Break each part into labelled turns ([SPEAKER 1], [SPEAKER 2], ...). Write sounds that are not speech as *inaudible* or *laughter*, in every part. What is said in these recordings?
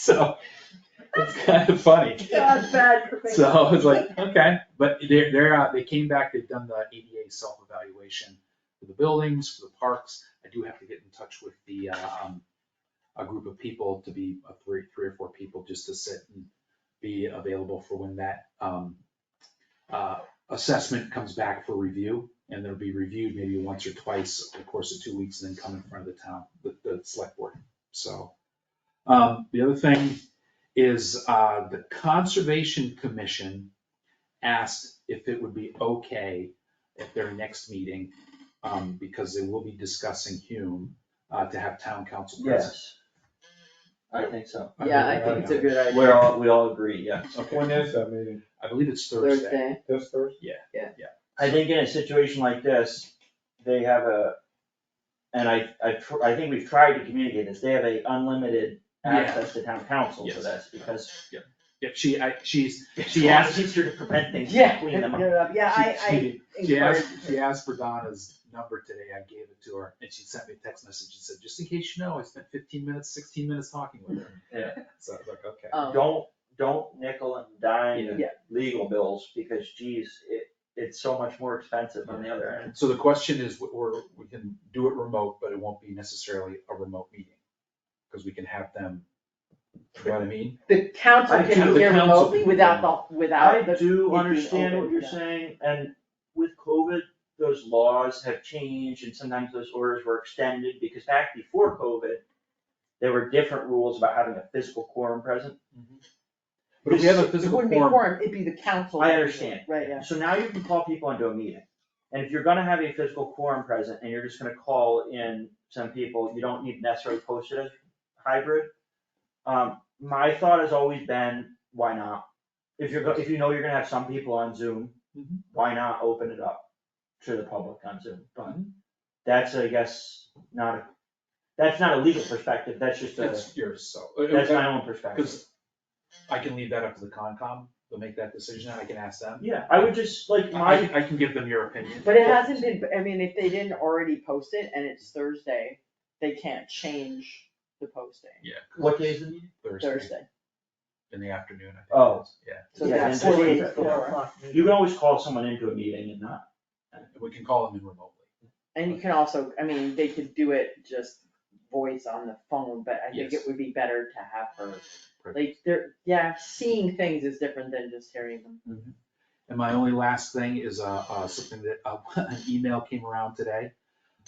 [SPEAKER 1] *laughs* So it's kind of funny.
[SPEAKER 2] That's bad for me.
[SPEAKER 1] So I was like, okay, but they're, they're, uh, they came back, they've done the ADA self-evaluation for the buildings, for the parks. I do have to get in touch with the, uh, um, a group of people to be, uh, three, three or four people just to sit and be available for when that, um, uh, assessment comes back for review. And they'll be reviewed maybe once or twice over the course of two weeks and then come in front of the town, the, the select board. So, um, the other thing is uh, the Conservation Commission asked if it would be okay at their next meeting, um, because they will be discussing Hume, uh, to have town council present.
[SPEAKER 3] Yes. I think so.
[SPEAKER 2] Yeah, I think it's a good idea.
[SPEAKER 3] We're all, we all agree, yeah.
[SPEAKER 1] Okay,
[SPEAKER 4] When is that meeting?
[SPEAKER 1] I believe it's Thursday.
[SPEAKER 2] Thursday,
[SPEAKER 4] This Thursday?
[SPEAKER 3] I think in a situation like this, they have a, and I, I, tr- I think we've tried to communicate this, they have a unlimited
[SPEAKER 1] Yeah.
[SPEAKER 3] access to town council for
[SPEAKER 1] Yes.
[SPEAKER 3] this, because
[SPEAKER 1] Yeah, she, I, she's,
[SPEAKER 3] it's
[SPEAKER 1] She
[SPEAKER 3] a lot
[SPEAKER 1] asked-
[SPEAKER 3] easier to prevent things than
[SPEAKER 2] yeah,
[SPEAKER 3] clean them up.
[SPEAKER 2] clear it up. yeah,
[SPEAKER 1] she,
[SPEAKER 2] I,
[SPEAKER 1] she,
[SPEAKER 2] I
[SPEAKER 1] she
[SPEAKER 2] encourage,
[SPEAKER 1] asked, she asked for Donna's number today. I gave it to her and she sent me a text message and said, just in case you know, I spent fifteen minutes, sixteen minutes talking with her.
[SPEAKER 3] Yeah.
[SPEAKER 1] So I was like, okay.
[SPEAKER 2] um,
[SPEAKER 3] Don't, don't nickel and dime
[SPEAKER 2] Yeah.
[SPEAKER 3] legal bills, because geez, it, it's so much more expensive on the other end.
[SPEAKER 1] So the question is, we're, we can do it remote, but it won't be necessarily a remote meeting, because we can have them, you know what I mean?
[SPEAKER 2] the council
[SPEAKER 3] I do-
[SPEAKER 2] can
[SPEAKER 3] the
[SPEAKER 2] hear
[SPEAKER 1] council
[SPEAKER 2] remotely
[SPEAKER 1] can
[SPEAKER 2] without the, without the.
[SPEAKER 3] I do
[SPEAKER 2] being
[SPEAKER 3] understand
[SPEAKER 2] open,
[SPEAKER 3] what you're
[SPEAKER 2] yeah.
[SPEAKER 3] saying, and with COVID, those laws have changed, and sometimes those orders were extended, because back before COVID, there were different rules about having a physical quorum present.
[SPEAKER 1] Mm-hmm. But if we have a
[SPEAKER 2] It
[SPEAKER 1] physical
[SPEAKER 2] wouldn't be
[SPEAKER 1] form,
[SPEAKER 2] quorum, it'd be the council.
[SPEAKER 3] I understand.
[SPEAKER 2] Right, yeah.
[SPEAKER 3] So now you can call people into a meeting, and if you're gonna have a physical quorum present, and you're just gonna call in some people, you don't need necessarily post it as hybrid. Um, my thought has always been, why not? If you're, go- if you know you're gonna have some people on Zoom,
[SPEAKER 1] Mhm.
[SPEAKER 3] why not open it up to the public on Zoom? But that's, I guess, not, a that's not a legal perspective, that's just a,
[SPEAKER 1] it's yours, so.
[SPEAKER 3] that's my own perspective.
[SPEAKER 1] Because I can leave that up to the Concom, they'll make that decision, and I can ask them.
[SPEAKER 3] Yeah, I would just, like, my.
[SPEAKER 1] I, I can give them your opinion.
[SPEAKER 2] But it hasn't been, I mean, if they didn't already post it and it's Thursday, they can't change the posting
[SPEAKER 1] Yeah.
[SPEAKER 3] What day is the meeting?
[SPEAKER 1] Thursday,
[SPEAKER 2] Thursday.
[SPEAKER 1] in the afternoon, I think. it
[SPEAKER 3] Oh.
[SPEAKER 1] is. Yeah,
[SPEAKER 2] So
[SPEAKER 3] Yeah,
[SPEAKER 2] that's
[SPEAKER 3] and
[SPEAKER 2] four
[SPEAKER 3] it's-
[SPEAKER 2] days before.
[SPEAKER 3] You can always call someone into a meeting and not,
[SPEAKER 1] we can call them in remotely.
[SPEAKER 2] And you can also, I mean, they could do it just voice on the phone, but I think it
[SPEAKER 1] Yes.
[SPEAKER 2] would be better to have her,
[SPEAKER 1] Right.
[SPEAKER 2] like, they're, yeah, seeing things is different than just hearing them.
[SPEAKER 1] And my only last thing is, uh, uh, something that, uh, *laughs* an email came around today,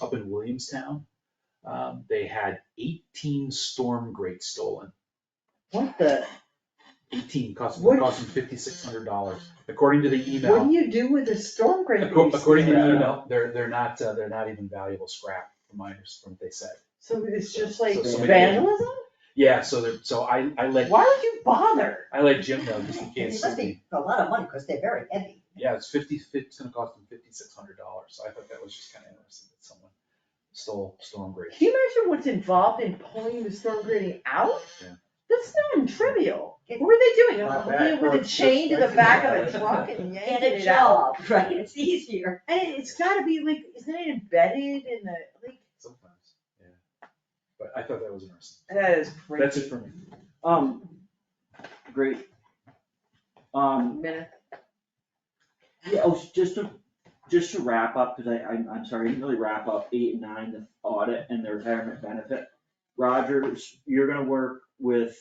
[SPEAKER 1] up in Williamstown. Um, they had eighteen storm grates stolen,
[SPEAKER 2] What the,
[SPEAKER 1] eighteen, cost,
[SPEAKER 2] What?
[SPEAKER 1] cost them fifty-six hundred dollars, according to the
[SPEAKER 2] what do
[SPEAKER 1] email.
[SPEAKER 2] you do with a storm
[SPEAKER 1] acco-
[SPEAKER 2] grate? that you
[SPEAKER 1] According to
[SPEAKER 2] steal?
[SPEAKER 1] the email, they're, they're not, uh, they're not even valuable scrap, from my, from what they said.
[SPEAKER 2] So it's just like
[SPEAKER 1] So
[SPEAKER 3] somebody-
[SPEAKER 2] vandalism?
[SPEAKER 1] Yeah, so they're, so I, I let,
[SPEAKER 2] Why would you bother?
[SPEAKER 1] I let Jim know, just in
[SPEAKER 5] It
[SPEAKER 1] case,
[SPEAKER 5] must
[SPEAKER 1] somebody-
[SPEAKER 5] be a lot of money, because they're very heavy.
[SPEAKER 1] yeah, it's fifty, it's gonna cost them fifty-six hundred dollars, so I thought that was just kinda interesting that someone stole storm grates.
[SPEAKER 2] Can you imagine what's involved in pulling the storm grating out?
[SPEAKER 1] Yeah.
[SPEAKER 2] That's not untrivial. What were they doing?
[SPEAKER 4] My
[SPEAKER 2] They were with a
[SPEAKER 4] backwards
[SPEAKER 2] chain to the
[SPEAKER 4] perspective.
[SPEAKER 2] back of a truck
[SPEAKER 1] *laughs*
[SPEAKER 2] and
[SPEAKER 5] Get
[SPEAKER 2] yanking
[SPEAKER 5] a
[SPEAKER 2] it out?
[SPEAKER 5] job, right, it's easier.
[SPEAKER 2] And it- it's gotta be like, isn't it embedded in the, like,
[SPEAKER 1] Sometimes, yeah. But I thought that was interesting.
[SPEAKER 2] that is crazy.
[SPEAKER 1] That's it for me.
[SPEAKER 3] Um, great. Um,
[SPEAKER 2] Minute.
[SPEAKER 3] yeah, oh, just to, just to wrap up, because I, I'm, I'm sorry, I didn't really wrap up eight and nine, the audit and the retirement benefit. Rogers, you're gonna work with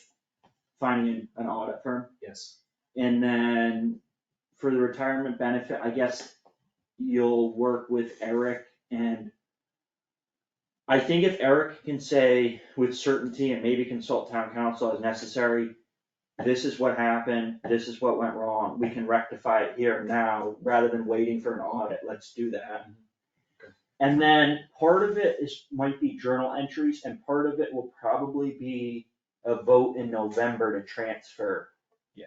[SPEAKER 3] finding an audit firm,
[SPEAKER 1] Yes.
[SPEAKER 3] and then for the retirement benefit, I guess you'll work with Eric and I think if Eric can say with certainty and maybe consult town council as necessary, this is what happened, this is what went wrong, we can rectify it here and now, rather than waiting for an audit, let's do that.
[SPEAKER 1] Okay.
[SPEAKER 3] And then part of it is, might be journal entries, and part of it will probably be a vote in November to transfer.
[SPEAKER 1] Yeah.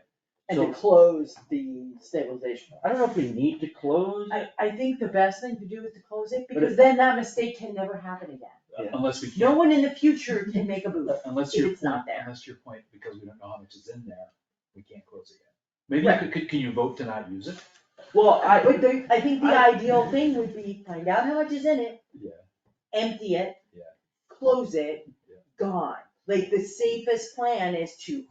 [SPEAKER 2] And
[SPEAKER 3] So
[SPEAKER 2] to close the stabilization. fund.
[SPEAKER 3] I don't know if we need to close.
[SPEAKER 5] I, I think the best thing to do is to close it,
[SPEAKER 3] But
[SPEAKER 5] because then that mistake can never happen again.
[SPEAKER 3] Yeah.
[SPEAKER 1] Uh, Unless we
[SPEAKER 5] No
[SPEAKER 1] can,
[SPEAKER 5] one in the future can make a boo.
[SPEAKER 1] unless
[SPEAKER 5] if
[SPEAKER 1] your
[SPEAKER 5] it's
[SPEAKER 1] point,
[SPEAKER 5] not there.
[SPEAKER 1] unless your point, because we don't know how much is in there, we can't close it yet. Maybe, you could- could, can you vote to not use it?
[SPEAKER 3] Well, I,
[SPEAKER 5] But the, I think the
[SPEAKER 3] I-
[SPEAKER 5] ideal thing would be find out how much is in it,
[SPEAKER 1] Yeah.
[SPEAKER 5] empty it,
[SPEAKER 1] Yeah.
[SPEAKER 5] close it,
[SPEAKER 1] Yeah.
[SPEAKER 5] gone.
[SPEAKER 2] Like the safest plan is to